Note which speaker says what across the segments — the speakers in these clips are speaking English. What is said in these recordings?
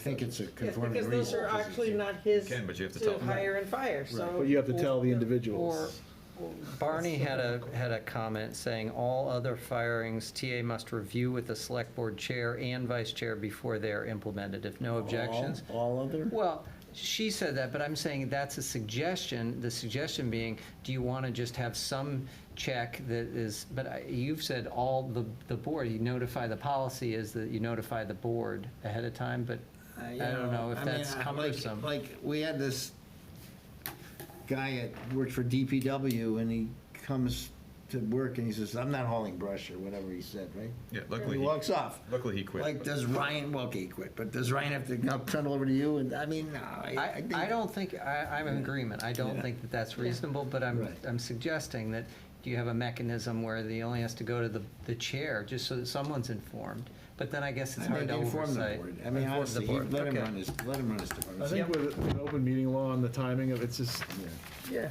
Speaker 1: think it's a
Speaker 2: Yes,
Speaker 1: conforming
Speaker 2: because
Speaker 1: reason.
Speaker 2: those are actually not his
Speaker 3: You can, but you have to
Speaker 2: to
Speaker 3: tell them.
Speaker 2: hire and fire, so.
Speaker 4: But you have to tell the
Speaker 5: Or
Speaker 4: individuals.
Speaker 5: Barney had a, had a comment saying, all other firings, TA must review with the select board chair and vice chair before they're implemented, if no objections.
Speaker 1: All all other?
Speaker 5: Well, she said that, but I'm saying that's a suggestion, the suggestion being, do you want to just have some check that is, but I- you've said all the, the board, you notify, the policy is that you notify the board ahead of time, but
Speaker 1: Uh,
Speaker 5: I
Speaker 1: you
Speaker 5: don't know if
Speaker 1: I mean,
Speaker 5: that's
Speaker 1: I- like-
Speaker 5: cumbersome.
Speaker 1: Like, we had this guy that worked for DPW, and he comes to work and he says, I'm not hauling brush, or whatever he said, right?
Speaker 3: Yeah,
Speaker 1: And
Speaker 3: luckily
Speaker 1: he
Speaker 3: he-
Speaker 1: walks off.
Speaker 3: luckily he quit,
Speaker 1: Like,
Speaker 3: but-
Speaker 1: does Ryan, well, okay, he quit, but does Ryan have to now turn it over to you? And, I mean, no, I, I
Speaker 5: I,
Speaker 1: think.
Speaker 5: I don't think, I, I'm in agreement, I don't
Speaker 1: Yeah.
Speaker 5: think that that's reasonable, but I'm,
Speaker 1: Right.
Speaker 5: I'm suggesting that you have a mechanism where the only has to go to the, the chair, just so that someone's informed, but then I guess
Speaker 1: I
Speaker 5: it's
Speaker 1: think
Speaker 5: hard to
Speaker 1: inform the
Speaker 5: oversight.
Speaker 1: board. I mean,
Speaker 5: Inform the
Speaker 1: honestly, he-
Speaker 5: board.
Speaker 1: let him
Speaker 5: Okay.
Speaker 1: run his, let him run his
Speaker 4: I
Speaker 1: department.
Speaker 4: think
Speaker 5: Yep.
Speaker 4: with an open meeting law and the timing of, it's just,
Speaker 1: Yeah.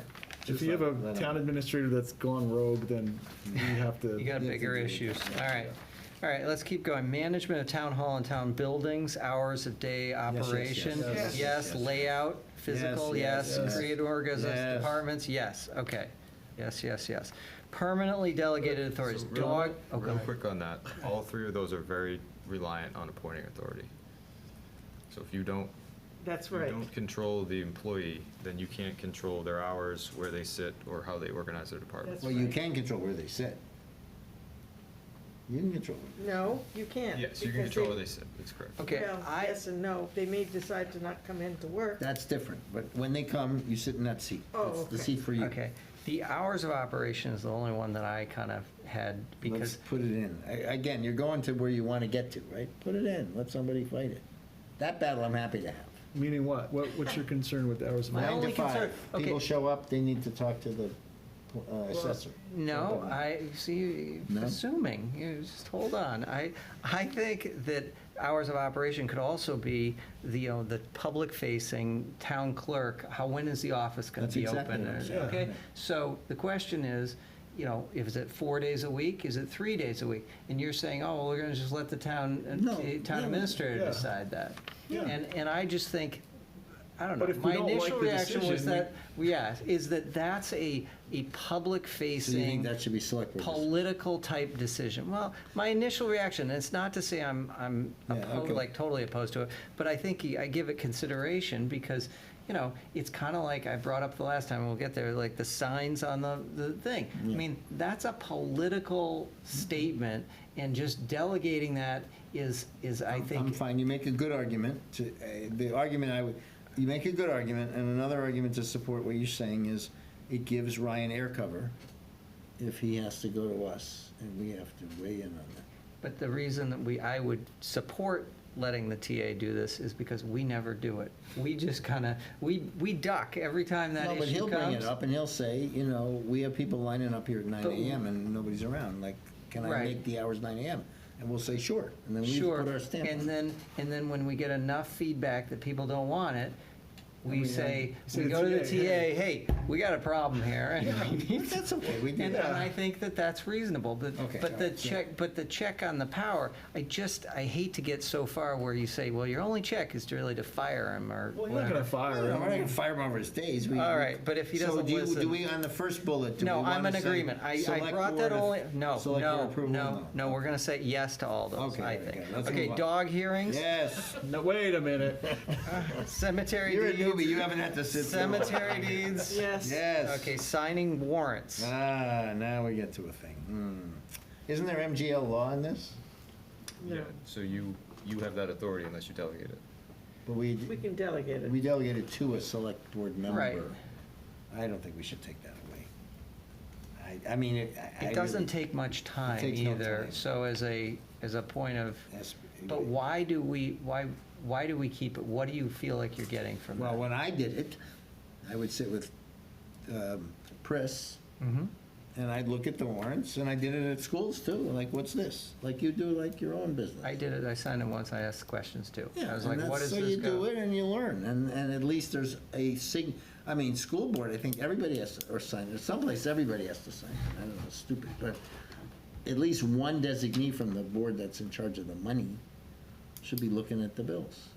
Speaker 4: if you have a town administrator that's gone rogue, then we have to.
Speaker 5: You got
Speaker 1: Yeah,
Speaker 5: bigger
Speaker 1: to do it.
Speaker 5: issues. All right. All right, let's keep going. Management of town hall and town buildings, hours of day
Speaker 1: yes,
Speaker 5: operation.
Speaker 1: yes,
Speaker 2: yes,
Speaker 5: Yes,
Speaker 1: yes.
Speaker 5: layout, physical,
Speaker 1: Yes,
Speaker 5: yes.
Speaker 1: yes, yes.
Speaker 5: Creative organisms,
Speaker 1: Yes.
Speaker 5: departments, yes. Okay. Yes, yes, yes. Permanently delegated authorities,
Speaker 3: So real-
Speaker 5: dog, oh, go
Speaker 3: Real
Speaker 5: ahead.
Speaker 3: quick on that, all three of those are very reliant on appointing authority. So if you don't,
Speaker 2: That's
Speaker 3: if you
Speaker 2: right.
Speaker 3: don't control the employee, then you can't control their hours, where they sit, or how they organize their department.
Speaker 2: That's
Speaker 1: Well, you
Speaker 2: right.
Speaker 1: can control where they sit. You can control it.
Speaker 2: No, you can't.
Speaker 3: Yes, you can
Speaker 2: because
Speaker 3: control where they sit, that's correct.
Speaker 5: Okay,
Speaker 2: Well,
Speaker 5: I-
Speaker 2: yes and no. They may decide to not come in to work.
Speaker 1: That's different, but when they come, you sit in that seat.
Speaker 2: Oh,
Speaker 1: That's The
Speaker 2: okay.
Speaker 1: seat for you.
Speaker 5: Okay. The hours of operation is the only one that I kind of had
Speaker 1: Let's
Speaker 5: because
Speaker 1: put it in. A- Again, you're going to where you want to get to, right? Put it in, let somebody fight it. That battle I'm happy to have.
Speaker 4: Meaning what? What, what's your concern with the hours of?
Speaker 5: My
Speaker 1: Nine
Speaker 4: operation?
Speaker 1: to
Speaker 5: only concern-
Speaker 1: five.
Speaker 5: okay.
Speaker 1: People show up, they need to talk to the uh, assessor.
Speaker 5: No, I, see,
Speaker 1: No?
Speaker 5: assuming, you just hold on. I, I think that hours of operation could also be the, you know, the public-facing town clerk, how, when is the office gonna
Speaker 1: That's
Speaker 5: be
Speaker 1: exactly
Speaker 5: open?
Speaker 1: what I'm
Speaker 5: and-
Speaker 1: saying.
Speaker 5: Okay,
Speaker 1: Yeah.
Speaker 5: so the question is, you know, if is it four days a week, is it three days a week? And you're saying, oh, well, we're gonna just let the town,
Speaker 1: No,
Speaker 5: uh, town
Speaker 1: no,
Speaker 5: administrator
Speaker 4: yeah.
Speaker 5: decide that.
Speaker 4: Yeah.
Speaker 5: And, and I just think, I don't know,
Speaker 4: But if we
Speaker 5: my
Speaker 4: don't like
Speaker 5: initial
Speaker 4: the
Speaker 5: reaction was
Speaker 4: decision, we-
Speaker 5: that, yeah, is that that's a, a public-facing
Speaker 1: So you think that should be select board? decision?
Speaker 5: political type decision. Well, my initial reaction, and it's not to say I'm, I'm
Speaker 1: Yeah,
Speaker 5: oppo-
Speaker 1: okay.
Speaker 5: like totally opposed to it, but I think I give it consideration because, you know, it's kind of like I brought up the last time, we'll get there, like the signs on the, the thing. I
Speaker 1: Yeah. Mm-hmm.
Speaker 5: mean, that's a political statement and just delegating that is, is I
Speaker 1: I'm
Speaker 5: think,
Speaker 1: fine, you make a good argument to, uh, the argument I would, you make a good argument, and another argument to support what you're saying is it gives Ryan air cover if he has to go to us, and we have to weigh in on that.
Speaker 5: but the reason that we, I would support letting the TA do this is because we never do it. We just kind of, we, we duck every time that
Speaker 1: No, but
Speaker 5: issue
Speaker 1: he'll bring it
Speaker 5: comes.
Speaker 1: up, and he'll say, you know, we have people lining up here at nine
Speaker 5: But-
Speaker 1: AM and nobody's around, like, can I
Speaker 5: Right.
Speaker 1: make the hours nine AM? And we'll say, sure, and then we
Speaker 5: Sure.
Speaker 1: put our stamp
Speaker 5: And
Speaker 1: on it.
Speaker 5: then, and then when we get enough feedback that people don't want it,
Speaker 1: Then
Speaker 5: we
Speaker 1: we
Speaker 5: say,
Speaker 4: say
Speaker 5: we
Speaker 4: to
Speaker 5: go to the
Speaker 4: TA,
Speaker 5: TA,
Speaker 4: hey.
Speaker 5: hey, we got a problem here. and we need
Speaker 1: But that's okay, we do
Speaker 5: And,
Speaker 1: that.
Speaker 5: and I think that that's reasonable, but,
Speaker 1: Okay,
Speaker 5: but the
Speaker 1: alright, so-
Speaker 5: check, but the check on the power, I just, I hate to get so far where you say, well, your only check is really to fire him or
Speaker 4: Well, you're not
Speaker 5: whatever.
Speaker 4: gonna fire
Speaker 1: I'm not gonna
Speaker 4: him.
Speaker 1: fire him over his days. we-
Speaker 5: All right, but if he
Speaker 1: So
Speaker 5: doesn't
Speaker 1: do you-
Speaker 5: listen-
Speaker 1: Do we, on the first bullet, do we
Speaker 5: No,
Speaker 1: want to
Speaker 5: I'm in agreement. I, I brought that only, no, no, no, no, we're gonna say yes to all those,
Speaker 1: Okay,
Speaker 5: I
Speaker 1: okay,
Speaker 5: think.
Speaker 1: let's
Speaker 5: Okay,
Speaker 1: move on.
Speaker 5: dog hearings,
Speaker 1: Yes.
Speaker 4: No, wait a minute.
Speaker 5: cemetery
Speaker 1: You're a
Speaker 5: deeds.
Speaker 1: newbie. You haven't had to sit. through it.
Speaker 5: Cemetery deeds.
Speaker 2: Yes.
Speaker 1: Yes.
Speaker 5: Okay, signing warrants.
Speaker 1: Ah, now we get to a thing. Hmm. Isn't there MGL law in this?
Speaker 3: Yeah,
Speaker 2: No.
Speaker 3: so you, you have that authority unless you delegate it.
Speaker 1: But we,
Speaker 2: We can delegate it.
Speaker 1: we delegated to a select board
Speaker 5: Right.
Speaker 1: member. I don't think we should take that away. I, I mean, it. I- I
Speaker 5: It doesn't
Speaker 1: really-
Speaker 5: take much time
Speaker 1: takes no
Speaker 5: either,
Speaker 1: time.
Speaker 5: so as a, as a point of,
Speaker 1: That's-
Speaker 5: but why do we, why, why do we keep it? What do you feel like you're getting from
Speaker 1: Well,
Speaker 5: that?
Speaker 1: when I did it, I would sit with, um, Chris,
Speaker 5: Mhm.
Speaker 1: and I'd look at the warrants, and I did it at schools too, like, what's this? Like you do like your own business.
Speaker 5: I did it, I signed it once, I asked questions too. I
Speaker 1: Yeah,
Speaker 5: was
Speaker 1: and
Speaker 5: like,
Speaker 1: that's-
Speaker 5: what is
Speaker 1: So you
Speaker 5: this
Speaker 1: do
Speaker 5: go?
Speaker 1: it and you learn, and, and at least there's a sig, I mean, school board, I think everybody has to, or sign, there's someplace everybody has to sign, I don't know, it's stupid, but at least one designee from the board that's in charge of the money should be looking at the bills.